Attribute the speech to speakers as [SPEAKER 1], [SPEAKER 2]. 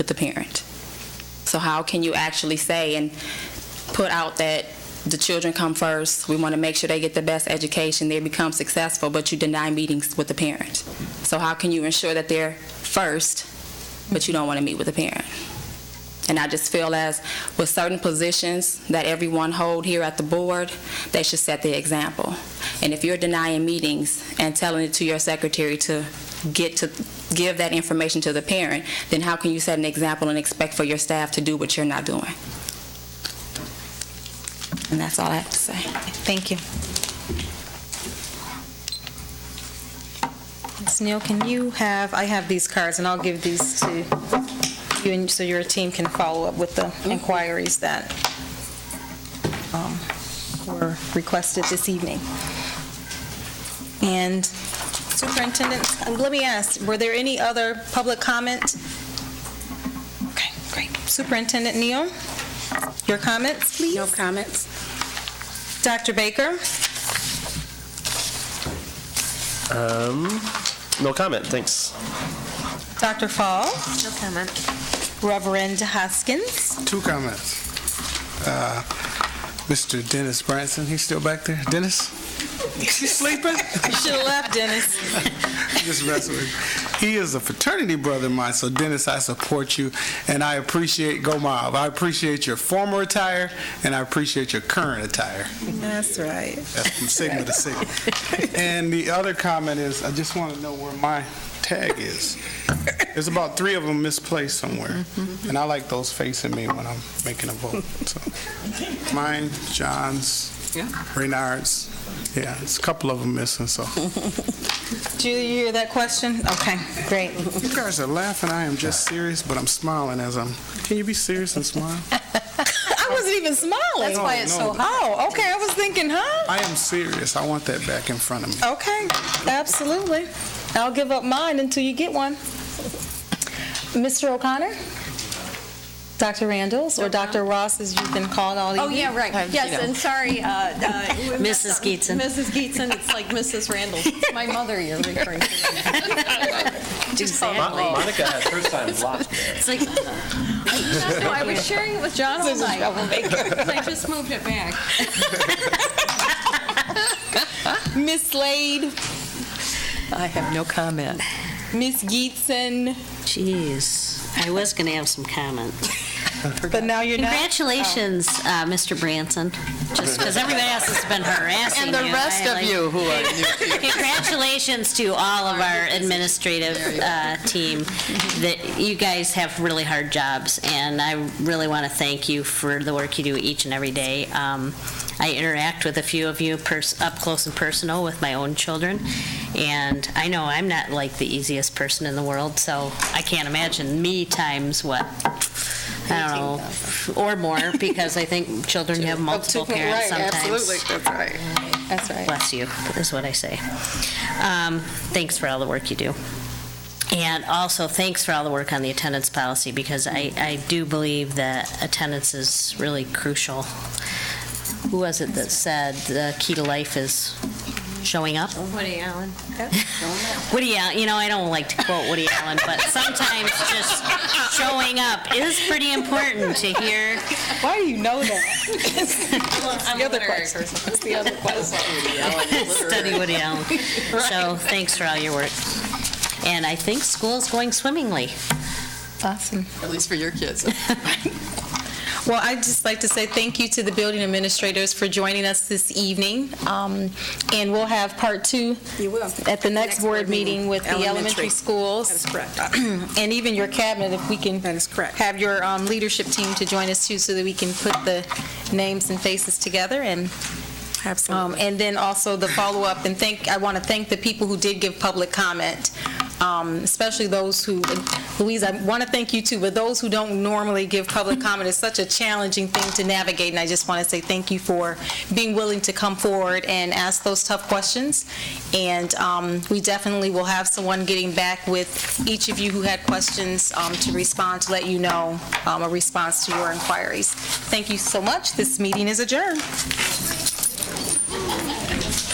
[SPEAKER 1] with the parent. So how can you actually say and put out that the children come first, we want to make sure they get the best education, they become successful, but you deny meetings with the parent? So how can you ensure that they're first, but you don't want to meet with the parent? And I just feel as with certain positions that everyone hold here at the board, they should set the example. And if you're denying meetings and telling it to your secretary to get to, give that information to the parent, then how can you set an example and expect for your staff to do what you're not doing? And that's all I have to say.
[SPEAKER 2] Thank you. Ms. Neal, can you have, I have these cards, and I'll give these to you, and so your team can follow up with the inquiries that um, were requested this evening. And Superintendent, um, let me ask, were there any other public comment? Okay, great. Superintendent Neal, your comments, please?
[SPEAKER 1] No comments?
[SPEAKER 2] Dr. Baker?
[SPEAKER 3] Um, no comment, thanks.
[SPEAKER 2] Dr. Fall,
[SPEAKER 4] No comment.
[SPEAKER 2] Reverend Hoskins,
[SPEAKER 5] Two comments. Uh, Mr. Dennis Branson, he's still back there? Dennis? Is he sleeping?
[SPEAKER 2] you should have left, Dennis.
[SPEAKER 5] Just messing with you. He is a fraternity brother of mine, so Dennis, I support you, and I appreciate Go Mob. I appreciate your former attire, and I appreciate your current attire.
[SPEAKER 2] That's right.
[SPEAKER 5] That's from Sigma to Sigma. And the other comment is, I just want to know where my tag is. There's about three of them misplaced somewhere, and I like those facing me when I'm making a vote. so. Mine, John's, Renard's, yeah, there's a couple of them missing, so.
[SPEAKER 2] Do you hear that question? Okay, great.
[SPEAKER 5] You guys are laughing, I am just serious, but I'm smiling as I'm, can you be serious and smile?
[SPEAKER 2] I wasn't even smiling. That's
[SPEAKER 5] why it's so No, no.
[SPEAKER 2] Oh, okay, I was thinking, huh?
[SPEAKER 5] I am serious, I want that back in front of me.
[SPEAKER 2] Okay, absolutely. I'll give up mine until you get one. Mr. O'Connor? Dr. Randalls, or Dr. Ross, as you've been called all
[SPEAKER 4] Oh,
[SPEAKER 2] evening?
[SPEAKER 4] yeah, right. Yes, and sorry. uh, uh, we messed
[SPEAKER 6] Mrs.
[SPEAKER 4] up.
[SPEAKER 6] Geetson.
[SPEAKER 4] Mrs. Geetson, it's like Mrs. Randall. It's My mother you're referring to. Just
[SPEAKER 7] Uh-huh.
[SPEAKER 4] call her
[SPEAKER 3] Mon-
[SPEAKER 4] Randall.
[SPEAKER 3] Monica had her time blocked there.
[SPEAKER 6] It's like,
[SPEAKER 4] No, I was sharing it with John all night. So I just moved it back.
[SPEAKER 2] Miss Slade,
[SPEAKER 4] I have no comment.
[SPEAKER 2] Miss Geetson,
[SPEAKER 6] jeez, I was going to have some comments.
[SPEAKER 2] but now you're not.
[SPEAKER 6] Congratulations, uh, Mr. Branson, just because everybody else has been harassing
[SPEAKER 7] And
[SPEAKER 6] you.
[SPEAKER 7] the rest
[SPEAKER 6] I
[SPEAKER 7] of
[SPEAKER 6] like-
[SPEAKER 7] you who are new.
[SPEAKER 6] Congratulations to all of our administrative uh, team, that you guys have really hard jobs, and I really want to thank you for the work you do each and every day. Um, I interact with a few of you pers- up close and personal with my own children, and I know I'm not like the easiest person in the world, so I can't imagine me times what, I don't know, or more, because I think children have multiple parents sometimes.
[SPEAKER 7] that's right.
[SPEAKER 2] That's right.
[SPEAKER 6] Bless you, is what I say. Um, Thanks for all the work you do. And also, thanks for all the work on the attendance policy, because I, I do believe that attendance is really crucial. Who was it that said the key to life is showing up?
[SPEAKER 4] Woody Allen.
[SPEAKER 6] Woody Allen, you know, I don't like to quote Woody Allen, but sometimes just showing up is pretty important to hear.
[SPEAKER 2] Why do you know that?
[SPEAKER 4] I'm
[SPEAKER 2] The other
[SPEAKER 4] literary
[SPEAKER 2] question.
[SPEAKER 4] person.
[SPEAKER 2] That's the other question.
[SPEAKER 6] Study Woody Allen. So, thanks for all your work. And I think school's going swimmingly.
[SPEAKER 2] Awesome.
[SPEAKER 7] At least for your kids.
[SPEAKER 2] Well, I'd just like to say thank you to the building administrators for joining us this evening. Um, And we'll have part two.
[SPEAKER 1] You will.
[SPEAKER 2] At the next board meeting with the elementary
[SPEAKER 7] Elementary.
[SPEAKER 2] schools.
[SPEAKER 7] That is correct.
[SPEAKER 2] And even your cabinet, if we can.
[SPEAKER 7] That is correct.
[SPEAKER 2] Have your um, leadership team to join us too, so that we can put the names and faces together and Um, And then also the follow-up, and thank, I want to thank the people who did give public comment, um, especially those who, Louise, I want to thank you too, but those who don't normally give public comment is such a challenging thing to navigate, and I just want to say thank you for being willing to come forward and ask those tough questions. And um, we definitely will have someone getting back with each of you who had questions um, to respond, to let you know um, a response to your inquiries. Thank you so much. This meeting is adjourned.